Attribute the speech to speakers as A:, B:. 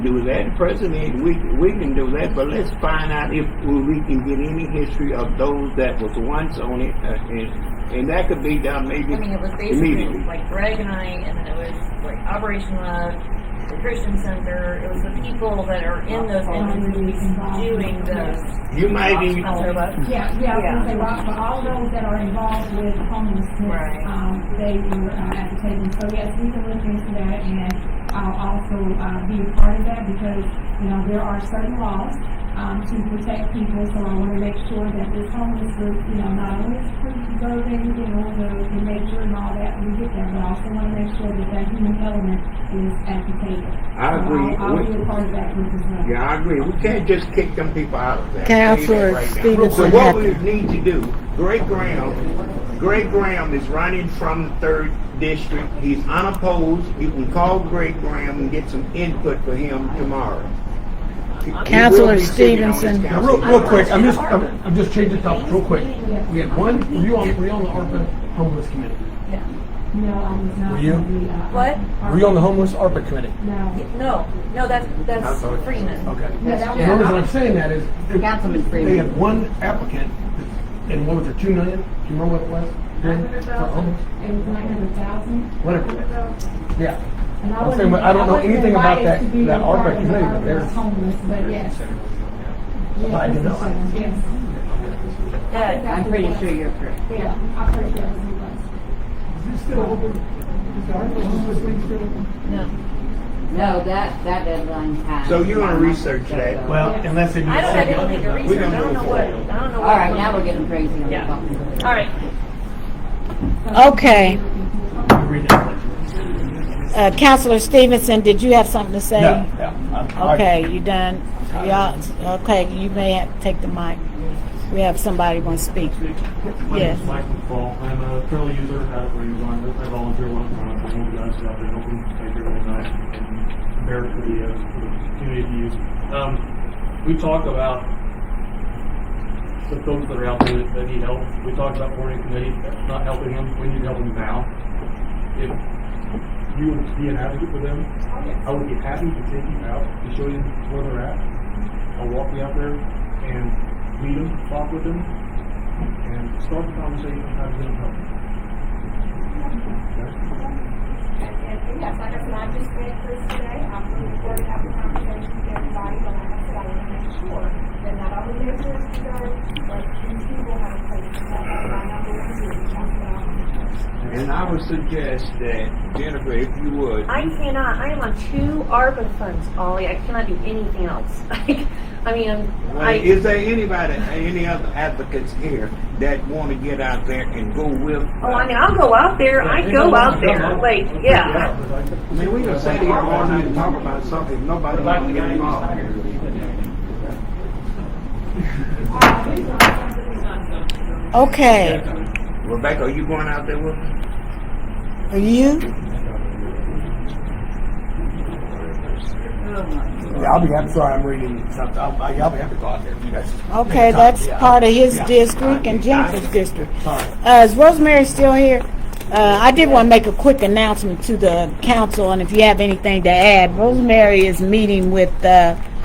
A: do that. The president, we, we can do that, but let's find out if we can get any history of those that was once on it, uh, and, and that could be done maybe
B: I mean, it was basically
A: immediately.
B: like Greg and I, and then it was like Operation Love, the Christian Center. It was the people that are in those entities doing those.
A: You might even,
B: I'll throw up.
C: Yeah, yeah, I was gonna say, Rob, but all those that are involved with homelessness,
B: Right.
C: um, they were, uh, at the table, so yes, we can look into that, and I'll also, uh, be a part of that, because, you know, there are certain laws, um, to protect people, so I wanna make sure that this homeless group, you know, not only is preserving, you know, the, the nature and all that, we get that, but I also wanna make sure that that human element is at the table.
A: I
C: So
A: agree.
C: I'll, I'll
A: We-
C: be a part of that group as well.
A: yeah, I agree. We can't just kick them people out of that.
D: Counselor
A: Say that right now. So
D: Stevenson
A: what
D: had
A: we
D: to-
A: need to do, Greg Graham, Greg Graham is running from the third district. He's unopposed. You can call Greg Graham and get some input for him tomorrow. He will be
D: Counselor
A: sitting on this
D: Stevenson.
A: council.
E: Now, real, real quick, I'm just, I'm, I'm just changing the topic real quick. We had one, were you on, were you on the ARPA homeless committee?
C: No, I was not.
E: Were you?
C: gonna be, uh,
B: What?
E: Were you on the homeless ARPA committee?
C: No.
B: No, no, that's that's Freeman.
E: Okay.
C: Yeah, that
E: The
C: was-
E: reason I'm saying that is,
F: Councilman
E: they
F: Freeman.
E: had one applicant, and what was it, two million? Do you remember what it was? For homeless?
C: It was nine hundred thousand.
E: Whatever, yeah.
C: And
E: I'm
C: wasn't-
E: saying, but I don't know
C: wasn't
E: anything about
C: invited
E: that-
C: to be
E: that
C: a part
E: ARPA
C: of the
E: committee, but
C: ARPA
E: there's-
C: Homeless, but yes. Yes,
E: I didn't know.
C: Mr. Shevins, uh, Yes,
B: Yeah.
F: I'm pretty sure you're correct.
C: yeah, I heard that was requested.
E: Is this still open? Is the ARPA homeless thing still open?
B: No,
F: No, that, that deadline passed.
A: So you're gonna research that?
E: Well, unless they do.
B: I don't. I didn't make a
A: We
B: research.
A: don't
B: I don't know
A: know.
B: what. I don't know.
F: All
B: What
F: right, now we're getting crazy on the
B: Yeah.
F: phone.
B: All right.
D: Okay. Uh, Counselor Stevenson, did you have something to say? Okay, you done? Y'all, okay, you may have to take the mic. We have somebody want to speak.
G: My
D: Yes.
G: name is Mike McFall. I'm a trail user out of Rio Grande. I volunteer one time. I'm one of the guys out there helping take everything night and prepare for the, uh, for the community to use. Um, we talk about the folks that are out there that need help. We talked about morning committee, that's not helping them. We need to help them now. If you would be an advocate for them, I would be happy to take you out to show you where they're at. I'll walk you out there and meet them, talk with them, and start the conversation how to get them help.
H: And yes, like I said, I just read this today, I'm looking forward to having conversations with everybody, but like I said, I wanna make sure that not only their voices are, but these people have a place to talk, and I'm not going to reach out to them.
A: And I would suggest that, Jennifer, if you would,
B: I cannot. I am on two ARPA funds, Ollie. I cannot do anything else. Like, I mean, I'm,
A: Well,
B: I.
A: uh, is there anybody, any other advocates here that want to get out there and go with? uh,
B: Oh, I mean, I'll go out there. I go out there. Like, yeah.
A: I mean, we just sat here all night and talk about something, nobody wants to get involved.
D: Okay,
A: Rebecca, are you going out there with me?
D: are you?
E: Yeah, I'll be, I'm sorry, I'm reading something. I'll, I'll be happy to go out there if you guys.
D: Okay, that's part of his district and Jennifer's district. Uh, is Rosemary still here? Uh, I did want to make a quick announcement to the council, and if you have anything to add, Rosemary is meeting with, uh,